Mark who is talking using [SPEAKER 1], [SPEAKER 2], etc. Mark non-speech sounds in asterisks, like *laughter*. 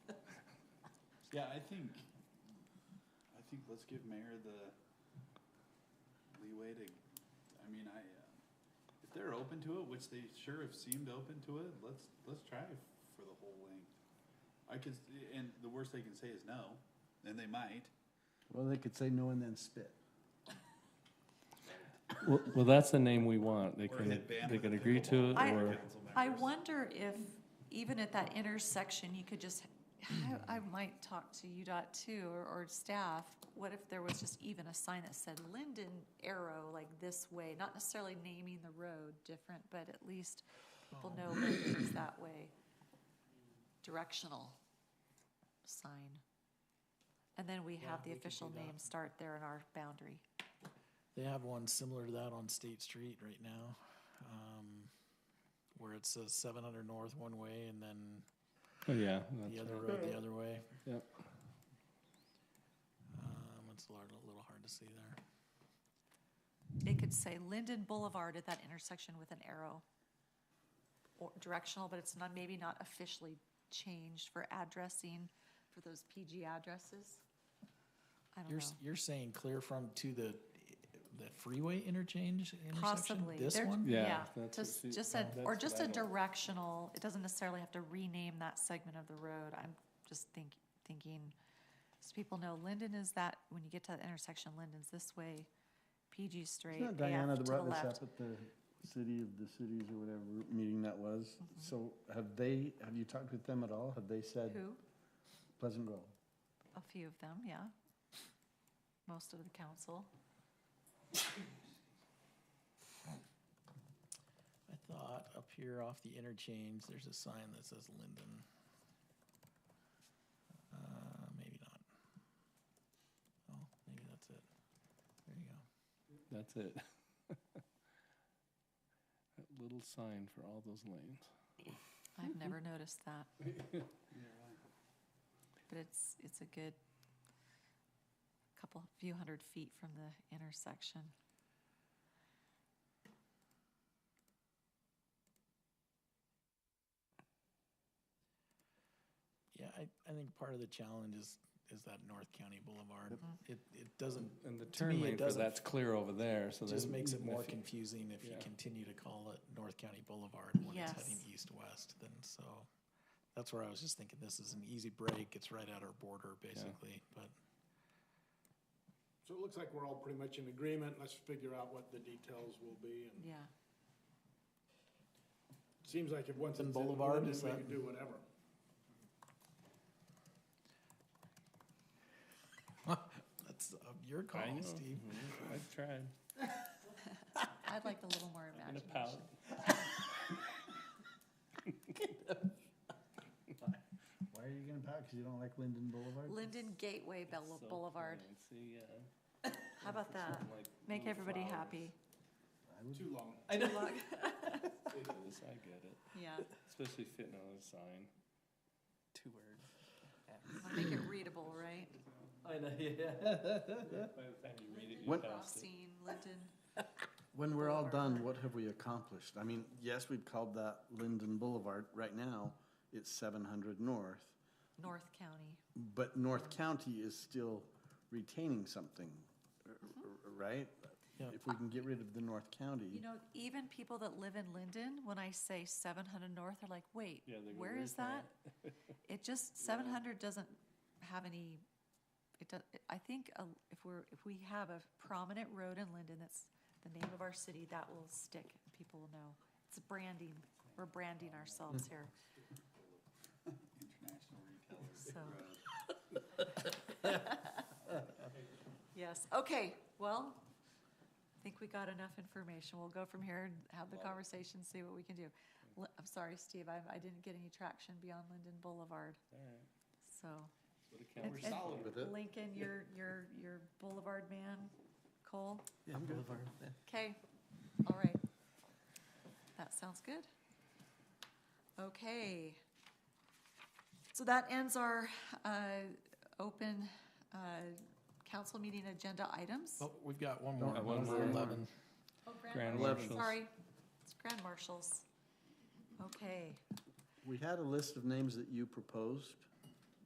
[SPEAKER 1] Yeah, I think, I think let's give mayor the leeway to, I mean, I, uh, if they're open to it, which they sure have seemed open to it, let's, let's try for the whole length. I could, s- and the worst they can say is no, and they might.
[SPEAKER 2] Well, they could say no and then spit.
[SPEAKER 3] Well, well, that's the name we want. They
[SPEAKER 1] Or
[SPEAKER 3] can,
[SPEAKER 1] hit band
[SPEAKER 3] they
[SPEAKER 1] with
[SPEAKER 3] can
[SPEAKER 1] a
[SPEAKER 3] agree to it,
[SPEAKER 4] I-
[SPEAKER 3] or,
[SPEAKER 4] I wonder if, even at that intersection, you could just, I, I might talk to UDOT too, or, or staff. What if there was just even a sign that said Linden Arrow, like this way, not necessarily naming the road different, but at least people know Linden is that way. Directional sign. And then we have the
[SPEAKER 5] we could do
[SPEAKER 4] official
[SPEAKER 5] that.
[SPEAKER 4] name start there in our boundary.
[SPEAKER 5] They have one similar to that on State Street right now, um, where it says seven hundred north one way and then
[SPEAKER 3] oh, yeah.
[SPEAKER 5] the
[SPEAKER 3] that's-
[SPEAKER 5] other road the other way.
[SPEAKER 3] Yep.
[SPEAKER 5] Um, it's a lot- a little hard to see there.
[SPEAKER 4] It could say Linden Boulevard at that intersection with an arrow. Or directional, but it's not, maybe not officially changed for addressing for those PG addresses. I don't
[SPEAKER 5] You're,
[SPEAKER 4] know.
[SPEAKER 5] s- you're saying clear from to the, the freeway interchange intersection?
[SPEAKER 4] Possibly.
[SPEAKER 5] This
[SPEAKER 4] They're-
[SPEAKER 5] one?
[SPEAKER 3] Yeah,
[SPEAKER 4] Yeah,
[SPEAKER 3] that's what
[SPEAKER 4] just,
[SPEAKER 3] she-
[SPEAKER 4] just a,
[SPEAKER 3] that's
[SPEAKER 4] or
[SPEAKER 3] what
[SPEAKER 4] just
[SPEAKER 3] I
[SPEAKER 4] a
[SPEAKER 3] don't-
[SPEAKER 4] directional, it doesn't necessarily have to rename that segment of the road. I'm just think, thinking, so people know Linden is that, when you get to that intersection, Linden's this way, PG straight,
[SPEAKER 2] Isn't that
[SPEAKER 4] AF
[SPEAKER 2] Diana
[SPEAKER 4] to
[SPEAKER 2] that
[SPEAKER 4] the
[SPEAKER 2] brought this up
[SPEAKER 4] left.
[SPEAKER 2] at the city of the cities or whatever meeting that was?
[SPEAKER 4] Mm-hmm.
[SPEAKER 2] So have they, have you talked with them at all? Have they said
[SPEAKER 4] Who?
[SPEAKER 2] Pleasant Grove?
[SPEAKER 4] A few of them, yeah. Most of the council.
[SPEAKER 5] I thought up here off the interchange, there's a sign that says Linden. Uh, maybe not. Oh, maybe that's it. There you go.
[SPEAKER 3] That's it. *laughs* That little sign for all those lanes.
[SPEAKER 4] I've never noticed
[SPEAKER 3] *laughs*
[SPEAKER 4] that. But it's, it's a good couple, few hundred feet from the intersection.
[SPEAKER 5] Yeah, I, I think part of the challenge is, is that North County Boulevard. It, it doesn't,
[SPEAKER 3] And the
[SPEAKER 5] to me,
[SPEAKER 3] turn
[SPEAKER 5] it
[SPEAKER 3] lane for
[SPEAKER 5] doesn't,
[SPEAKER 3] that's clear over there, so
[SPEAKER 5] it
[SPEAKER 3] that.
[SPEAKER 5] just makes it more
[SPEAKER 3] if you-
[SPEAKER 5] confusing if you
[SPEAKER 3] yeah.
[SPEAKER 5] continue to call it North County Boulevard when it's heading
[SPEAKER 4] Yes.
[SPEAKER 5] east-west, then so. That's where I was just thinking, this is an easy break, it's right at our border, basically, but.
[SPEAKER 6] So it looks like we're all pretty much in agreement. Let's figure out what the details will be. And
[SPEAKER 4] Yeah.
[SPEAKER 6] it seems like if once it's
[SPEAKER 5] And
[SPEAKER 6] in
[SPEAKER 5] Boulevard,
[SPEAKER 6] Linden, we
[SPEAKER 5] is
[SPEAKER 6] can
[SPEAKER 5] that-
[SPEAKER 6] do whatever.
[SPEAKER 5] That's uh, your
[SPEAKER 3] I know.
[SPEAKER 5] call, Steve.
[SPEAKER 3] Mhm. *laughs* I've tried.
[SPEAKER 4] I'd like a little more
[SPEAKER 3] In a pout.
[SPEAKER 4] imagination.
[SPEAKER 2] Why are you gonna pack? Cause you don't like Linden Boulevard?
[SPEAKER 4] Linden Gateway Bel-
[SPEAKER 3] So
[SPEAKER 4] Boulevard.
[SPEAKER 3] plain. See, yeah.
[SPEAKER 4] How about that?
[SPEAKER 3] Like
[SPEAKER 4] Make
[SPEAKER 3] little
[SPEAKER 4] everybody
[SPEAKER 3] flowers.
[SPEAKER 4] happy.
[SPEAKER 6] Too long.
[SPEAKER 3] *laughs* It is, I get it.
[SPEAKER 4] Yeah.
[SPEAKER 3] Especially fitting on a sign.
[SPEAKER 7] Two words.
[SPEAKER 4] Make it readable, right?
[SPEAKER 7] I
[SPEAKER 3] *laughs*
[SPEAKER 7] know, yeah.
[SPEAKER 3] By the time you read it, you
[SPEAKER 2] When-
[SPEAKER 3] passed it.
[SPEAKER 4] Rothstein, Linden.
[SPEAKER 2] When we're all done, what have we accomplished? I mean, yes, we've called that Linden Boulevard. Right now, it's seven hundred north.
[SPEAKER 4] North County.
[SPEAKER 2] But North County is still retaining something,
[SPEAKER 4] Mm-hmm.
[SPEAKER 2] r- r- right?
[SPEAKER 5] Yeah.
[SPEAKER 2] If we can get rid of the North
[SPEAKER 4] You
[SPEAKER 2] County,
[SPEAKER 4] know, even people that live in Linden, when I say seven hundred north, they're like, wait,
[SPEAKER 3] Yeah, they go,
[SPEAKER 4] where
[SPEAKER 3] "Where's
[SPEAKER 4] is that?
[SPEAKER 3] *laughs*
[SPEAKER 4] It just, seven hundred doesn't have any, it does, I think uh, if we're, if we have a prominent road in Linden that's the name of our city, that will stick. People will know. It's branding. We're branding ourselves
[SPEAKER 3] Hmm.
[SPEAKER 4] here.
[SPEAKER 1] International retailers.
[SPEAKER 4] So-
[SPEAKER 1] Road.
[SPEAKER 4] Yes, okay, well, I think we got enough information. We'll go from here and have the conversation, see what we can do. Li- I'm sorry, Steve, I, I didn't get any traction beyond Linden Boulevard,
[SPEAKER 3] All right.
[SPEAKER 4] so.
[SPEAKER 3] What a count.
[SPEAKER 4] And- Lincoln, your, your, your Boulevard man, Cole?
[SPEAKER 7] Yeah, Boulevard, yeah.
[SPEAKER 4] Okay, all right. That sounds good. Okay. So that ends our uh, open uh, council meeting agenda items.
[SPEAKER 5] Oh, we've got one more.
[SPEAKER 3] one
[SPEAKER 5] Number
[SPEAKER 3] more.
[SPEAKER 5] Eleven.
[SPEAKER 4] Oh,
[SPEAKER 3] Grand Marshals.
[SPEAKER 4] Sorry, it's grand marshals. Okay,
[SPEAKER 2] we had a list of names that you proposed.